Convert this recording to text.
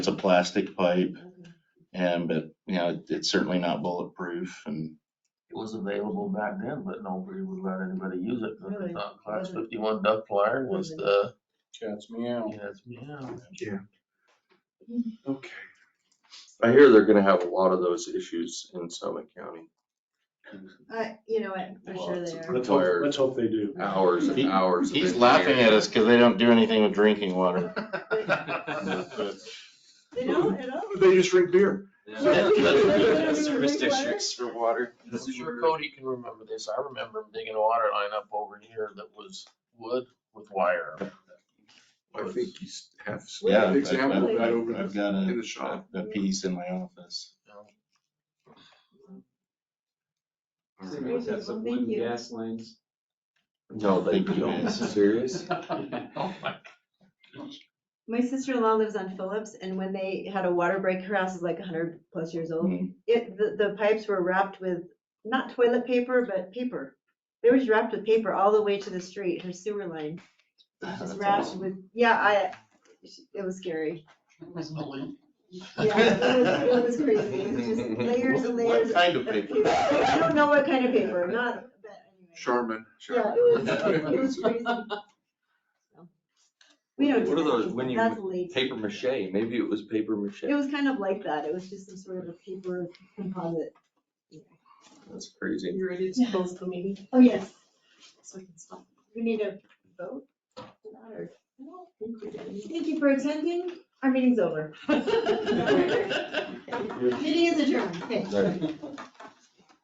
it's a plastic pipe Mm-hmm. and, but, you know, it- it's certainly not bulletproof and It was available back then, but nobody would let anybody use it, because Really? they thought class Wasn't- fifty-one duck flyer was Wasn't- the, Cats meow. yes, yeah. Okay. I hear they're gonna have a lot of those issues in Summit County, I, Uh, you know, what, for Well, sure it's they a- are. Let's hope, Tired. let's hope they do. hours and He- hours. of he's laughing at engineering. us because they don't do anything with drinking water. They don't at all. They just drink beer. Service districts for water. I'm sure Cody can remember this, I remember digging a water line up over here that was wood with wire. I think you s- have s- Yeah, an I've- example of I've- that over I've the- got in the a, shop. a piece in my office. It's crazy. Have Well, thank some wooden you. gas lines. No, they don't. Serious? Oh my My sister-in-law lives on Phillips and when they had a water break, her house is like hundred plus years old. Mm. It, the, the pipes were wrapped with, not toilet paper, but paper. They were just wrapped with paper all the way to the street, her sewer line. It was Oh, That's Just wrapped awesome. with, yeah, I, it was scary. goodness, Lee. Yeah, it was, it was crazy. It was just layers and layers. What kind of paper? I don't know what kind of paper, not, but anyway. Charmin. Yeah, Charmin. it was, it was crazy. We don't. do What are that. those when you That's late. Paper mache, maybe it was paper mache. It was kind of like that. It was just some sort of a paper composite. That's crazy. You ready to close the meeting? Oh, yes. So I can stop. We need a vote. for that, or- Thank you for attending. Our meeting's over. Meeting is adjourned. Thanks.